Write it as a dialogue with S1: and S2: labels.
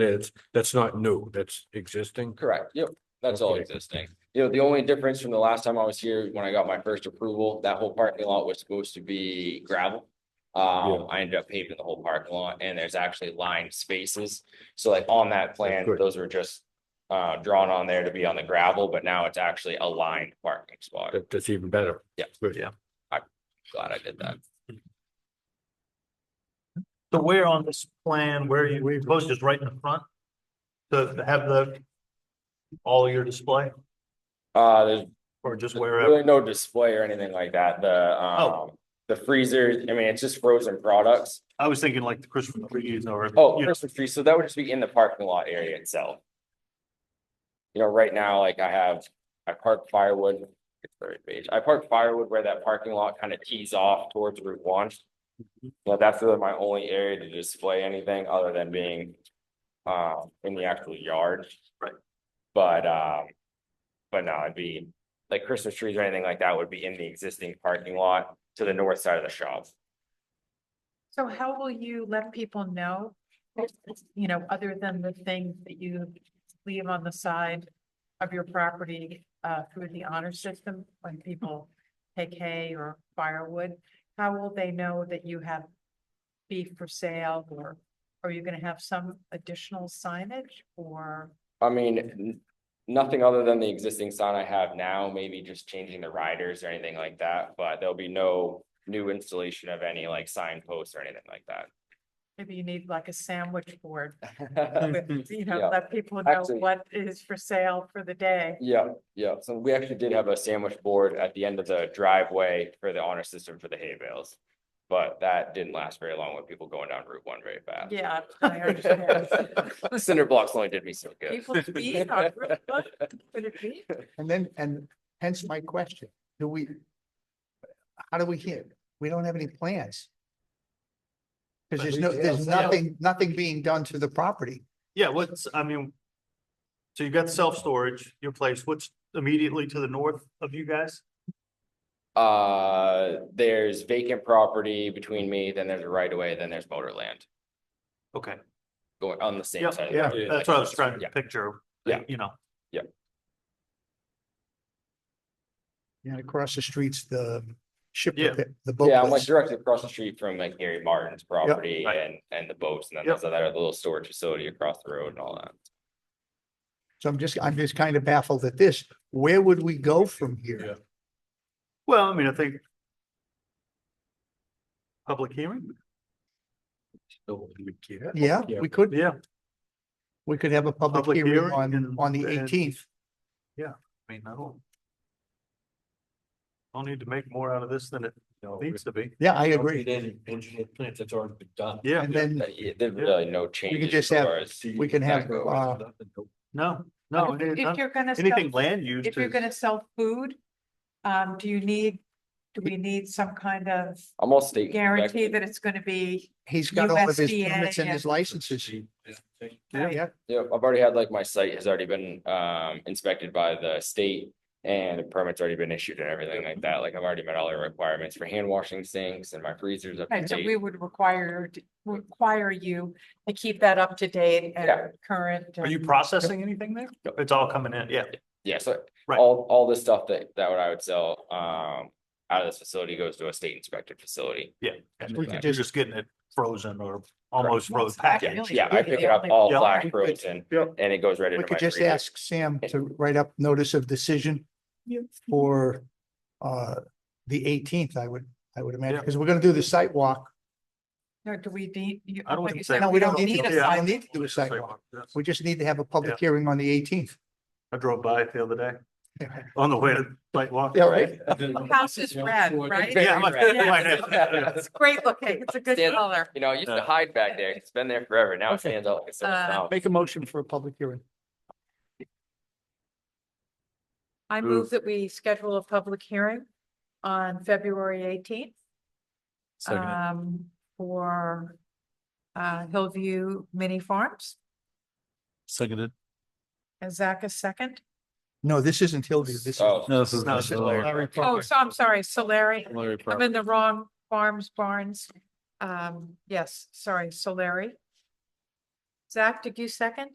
S1: It's, that's not new, that's existing.
S2: Correct, yep, that's all
S1: Okay.
S2: existing. You know, the only difference from the last time I was here, when I got my first approval, that whole parking lot was supposed to be gravel. Um, I ended up paving the whole parking lot and there's actually lined spaces. So like on that plan,
S1: good.
S2: those were just uh, drawn on there to be on the gravel, but now it's actually a lined parking spot.
S1: That, that's even better.
S2: Yeah.
S1: Good.
S3: Yeah.
S2: Glad I did that.
S3: So where on this plan, where you, where you posed is right in the front? To to have the, all your display
S2: Uh, there's
S3: or just wherever?
S2: really no display or anything like that. The, um,
S3: Oh.
S2: the freezer, I mean, it's just frozen products.
S3: I was thinking like the Christmas trees or.
S2: Oh,
S3: you know,
S2: Christmas tree, so that would just be in the parking lot area itself. You know, right now, like I have, I park firewood, it's third page, I park firewood where that parking lot kind of tees off towards Route one. But that's really my only area to display anything other than being uh in the actual yard.
S3: Right.
S2: But um, but no, it'd be like Christmas trees or anything like that would be in the existing parking lot to the north side of the shop.
S4: So how will you let people know, you know, other than the things that you leave on the side of your property uh through the honor system when people take hay or firewood? How will they know that you have beef for sale or are you gonna have some additional signage or?
S2: I mean, n- nothing other than the existing sign I have now, maybe just changing the riders or anything like that, but there'll be no new installation of any like signposts or anything like
S4: Maybe you need like a sandwich board,
S2: that.
S4: with, you know,
S2: Yeah.
S4: let people know
S2: Actually-
S4: what is for sale for the day.
S2: Yeah, yeah, so we actually did have a sandwich board at the end of the driveway for the honor system for the hay bales. But that didn't last very long with people going down Route one very fast.
S4: Yeah, I understand.
S2: The cinder blocks only did me so good.
S4: People to be on Route one, could it be?
S5: And then, and hence my question, do we? How do we hit? We don't have any plans. Because there's no, there's
S3: Yeah.
S5: nothing, nothing being done to the property.
S3: Yeah, what's, I mean. So you've got self-storage, your place, what's immediately to the north of you guys?
S2: Uh, there's vacant property between me, then there's a right of way, then there's motor land.
S3: Okay,
S2: going on the same
S3: Yep,
S2: side. of the
S3: yeah,
S2: road,
S3: that's
S2: like-
S3: what I was trying
S2: Yeah.
S3: to picture,
S2: Yeah.
S3: you know,
S5: And across the streets, the ship,
S3: Yeah.
S5: repair- the boat.
S2: Yeah, I'm like
S5: place.
S2: directly across the street from like Gary Martin's property
S3: Right.
S2: and, and the boats, and then
S3: Yep.
S2: there's that little storage facility across the road and all that.
S5: So I'm just, I'm just kind of baffled at this. Where would we go from
S1: Yeah.
S5: here?
S3: well, I mean, I think. Public hearing,
S5: Yeah,
S1: Yeah.
S5: we could,
S3: yeah,
S5: we could have a public
S3: Public
S5: hearing
S3: hearing
S5: on,
S3: and-
S5: on the
S3: and-
S5: eighteenth.
S3: I mean, I don't. I'll need to make more out of this than it needs to be,
S5: Yeah, I agree.
S1: Any engineered plans that's already been done.
S3: yeah,
S5: And then
S2: But yeah, There's really no changes.
S5: just
S2: as
S5: have-
S2: far as-
S5: we can have,
S2: Go.
S5: uh,
S3: no, no. it
S4: If
S3: ain't
S4: if
S3: none-
S4: you're gonna
S3: Oh, Anything
S4: sell,
S3: land use
S4: if you're
S3: is-
S4: gonna sell food, um, do you need, do we need some kind of
S2: I'm all state.
S4: guarantee that it's gonna be?
S5: he's got all of his
S4: USDA
S5: permits and his
S4: and-
S5: licenses. Yeah,
S2: Yeah, I've already had like my site has already been um inspected by the state. And the permit's already been issued and everything like that. Like I've already met all the requirements for hand washing sinks and my freezers up to
S4: Right, so we
S2: date.
S4: would require, require you to keep that up to date
S2: Yeah.
S4: and current.
S3: Are
S4: and-
S3: you processing anything there?
S2: Yep.
S3: It's all coming in, yeah.
S2: Yeah, so
S3: Right.
S2: all, all this stuff that, that what I would sell, um, out of this facility goes to a state inspected facility.
S3: We
S5: could
S3: You're
S5: just-
S3: just getting it frozen or almost frozen
S4: That's
S3: packaged.
S4: really
S2: Yeah, I
S4: good,
S2: pick
S4: the
S2: it up
S4: only-
S2: all
S3: Yeah.
S2: flash
S5: We could-
S2: frozen
S3: yeah.
S2: and it goes right
S5: We
S2: into my
S5: could just
S2: freezer.
S5: ask Sam to write up notice of decision for uh the eighteenth, I would, I would imagine,
S3: Yeah.
S5: because we're gonna do the site walk.
S4: No, do we need? you-
S3: I don't
S4: like
S3: think
S4: you
S3: so.
S4: said,
S5: No, we don't need,
S3: need
S4: a
S3: to-
S5: to-
S3: yeah.
S4: sign.
S5: I don't need to do a site walk. We just need to have a public hearing on the eighteenth.
S3: I drove by it the other day on the way to sidewalk.
S5: Yeah, right.
S4: House is red, right?
S3: Yeah, I'm like,
S2: Yeah.
S4: It's great looking. It's a good
S2: Stand-
S4: color.
S2: You know, I used to hide back there. 'cause It's been there forever. Now it
S5: Okay.
S2: stands out like a sore
S4: Uh,
S2: thumb.
S5: Make a motion for a public hearing.
S4: I
S3: Move.
S4: move that we schedule a public hearing on February eighteenth. Um, for uh, Hillview Mini Farms.
S6: Seconded.
S4: Is Zach a second?
S5: No, this isn't Hillview, this is.
S2: Oh,
S6: No, this is.
S3: No,
S6: this
S3: it's
S6: is
S3: Larry.
S6: Larry-
S5: Larry
S4: Oh,
S5: Parker.
S4: so I'm sorry, Solari.
S6: Larry
S4: I'm
S6: Park.
S4: in the wrong farms, barns. Um, yes, sorry, Solari. Zach, did you second?